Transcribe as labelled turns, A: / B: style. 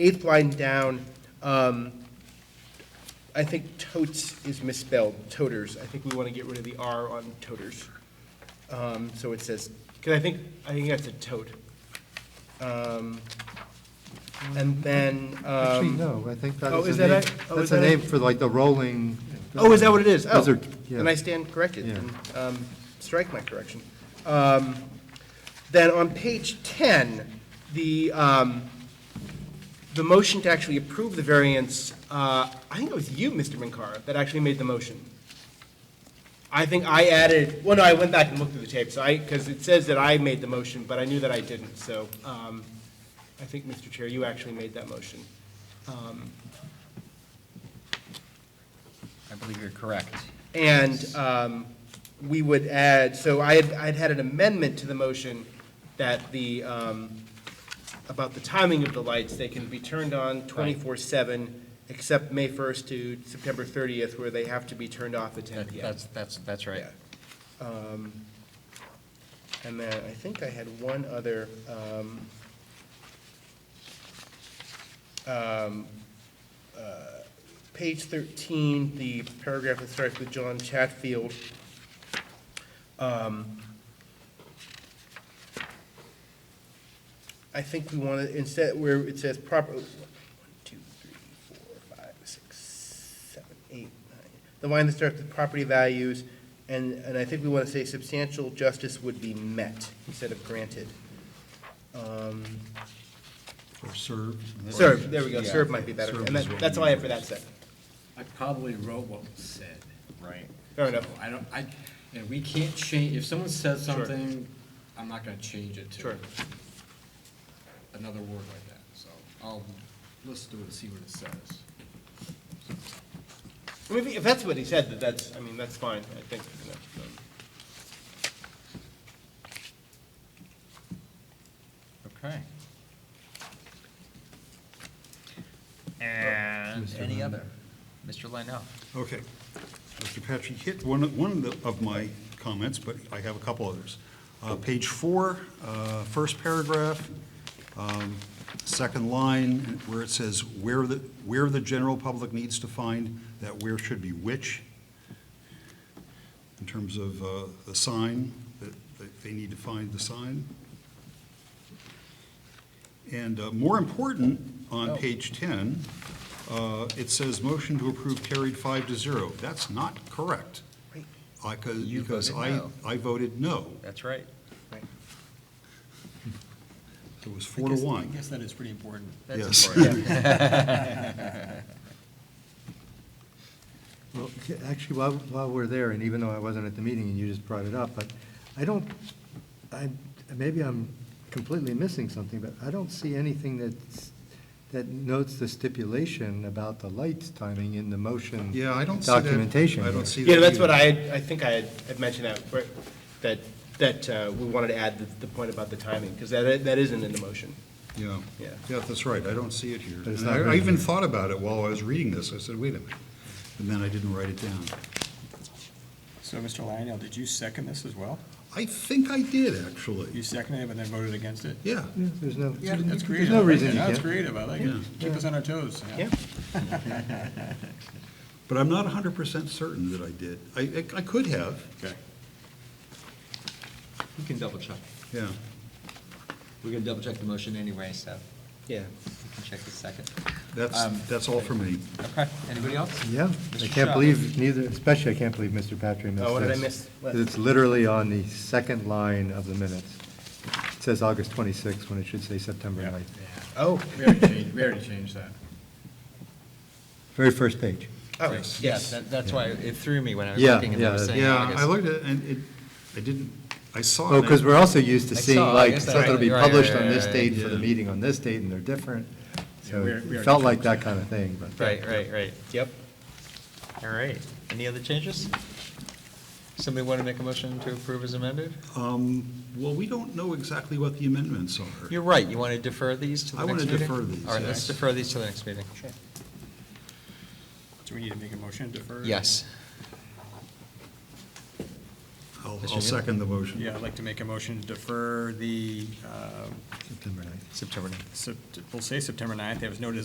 A: eighth line down, um, I think totes is misspelled, toters. I think we want to get rid of the R on toters. Um, so it says, because I think, I think that's a tote. Um, and then,
B: Actually,
A: um,
B: no, I think that
A: oh,
B: is
A: is
B: a
A: that
B: name,
A: it? Oh,
B: that's
A: is
B: a
A: that
B: name
A: it?
B: for like the rolling.
A: oh, is that what it is? Oh,
B: Those are- yeah.
A: and I stand corrected.
B: Yeah.
A: And, um, strike my correction. Um, then on page ten, the, um, the motion to actually approve the variance, uh, I think it was you, Mr. Minkara, that actually made the motion. I think I added, well, no, I went back and looked through the tape, so I, because it says that I made the motion, but I knew that I didn't, so um, I think, Mr. Chair, you actually made that motion. Um,
C: I believe you're correct.
A: And um, we would add, so I had, I'd had an amendment to the motion that the, um, about the timing of the lights, they can be turned on 24/7, except May 1st to September 30th, where they have to be turned off at 10
C: That-
A: PM.
C: That's, that's, that's right.
A: Yeah. Um, And then I think I had one other, um, um, uh, page 13, the paragraph that starts with John Chatfield. Um, I think we want to, instead, where it says proper, one, two, three, four, five, six, seven, eight, nine. The line that starts with property values, and, and I think we want to say substantial justice would be met instead of granted. Um,
D: Or serve.
A: Serve, there we go, serve might be better,
D: Serve
A: and
D: is
A: that,
D: what
A: that's
D: we
A: all I have
D: need.
A: for that set.
E: I probably wrote what was said.
C: Right.
A: Fair enough.
E: So I don't, I, and we can't change, if someone says
A: Sure.
E: something, I'm not gonna change it to
A: Sure.
E: another word like that, so I'll listen to it and see what it says.
A: I mean, If if that's what he said, that that's, I mean, that's fine, I think. you know, um,
C: Okay. And
D: Mr.
C: any
D: Lino.
C: other? Mr. Lino?
D: Okay. Mr. Patrick hit one, of- one of the- of my comments, but I have a couple others. Uh, Page four, uh, first paragraph, um, second line, where it says, where the, where the general public needs to find, that where should be which, in terms of uh, the sign, that that they need to find the sign. And uh, more important, on page 10, uh, it says, "Motion to approve carried five to zero." That's not correct.
A: Right.
D: I co-
C: You
D: Because
C: voted
D: I,
C: no.
D: I voted no.
C: That's right.
A: right.
D: It was four to
F: I
D: one.
F: guess that is pretty important.
C: That's
D: Yes.
C: important.
B: Well, c- actually, while, while we're there, and even though I wasn't at the meeting and you just brought it up, but I don't, I, maybe I'm completely missing something, but I don't see anything that's, that notes the stipulation about the lights timing in the motion.
D: Yeah, I don't see that.
B: Documentation.
D: I don't
B: here.
D: see that.
A: Yeah, that's
D: either.
A: what I, had- I think I had had mentioned that, where- that, that uh, we wanted to add the- the point about the timing, because that, that isn't in the motion.
D: Yeah,
A: Yeah.
D: yeah, that's right, I don't see it here.
B: But it's
D: And
B: not
D: I- I
B: written
D: even
B: here.
D: thought about it while I was reading this, I said, wait a minute, and then I didn't write it down.
F: So, Mr. Lionel, did you second this as well?
D: I think I did,
F: You
D: actually,
F: seconded it, but then voted against it?
D: yeah.
B: Yeah, There's no,
F: That's
B: there's
F: creative.
B: no
F: I like
B: reason
F: it.
B: you
F: That's
B: can't.
F: creative, I like it.
D: Yeah.
F: Keep us on our toes.
A: Yeah.
D: But I'm not hundred percent certain that I did. I, I I could have,
F: Okay.
C: We can double check.
D: yeah.
C: We're going to double check the motion anyway, so
A: Yeah.
C: we can check the second.
D: That's,
C: Um,
D: that's all for me.
C: Okay, anybody else?
B: Yeah, I
C: Mr.
B: can't
C: Shaw.
B: believe neither, especially I can't believe Mr. Patrick missed this.
A: Oh, what did I miss? What?
B: 'Cause It's literally on the second line of the minutes. It says August 26th when it should say September
F: Yeah.
B: 9th.
A: Oh,
F: We already changed, we already changed that.
B: Very first page.
A: oh,
C: Yes,
A: yes.
C: that- that's why it threw me when I was
B: Yeah,
C: looking and I was
B: yeah,
C: saying
D: Yeah,
C: August.
D: I looked at it, and it, I didn't, I saw it.
B: Oh, because we're also used to
C: I
B: seeing
C: saw, I
B: like,
C: guess
B: something will be
C: that's right,
B: published
C: right,
B: on this
C: right,
B: date for the
D: yeah.
B: meeting on this date, and they're different.
F: Yeah,
B: So
F: we are- we
B: it
F: are
B: felt like
F: different.
B: that kind of thing, but.
C: Right, right, right.
A: Yep.
C: All right. Any other changes? Somebody want to make a motion to approve as amended?
D: Um, Well, we don't know exactly what the amendments are.
C: You're right, you want to defer these to the
D: I
C: next
D: wanna
C: meeting?
D: defer these,
C: All right, let's
D: yes.
C: defer these to the next meeting.
F: Do we need to make a motion to defer?
C: Yes.
D: I'll I'll,
C: Mr.
D: I'll
C: Neal?
D: second the motion.
F: Yeah, I'd like to make a motion to defer the, uh,
B: September ninth.
C: September ninth.
F: Sept- we'll say September 9th. There was no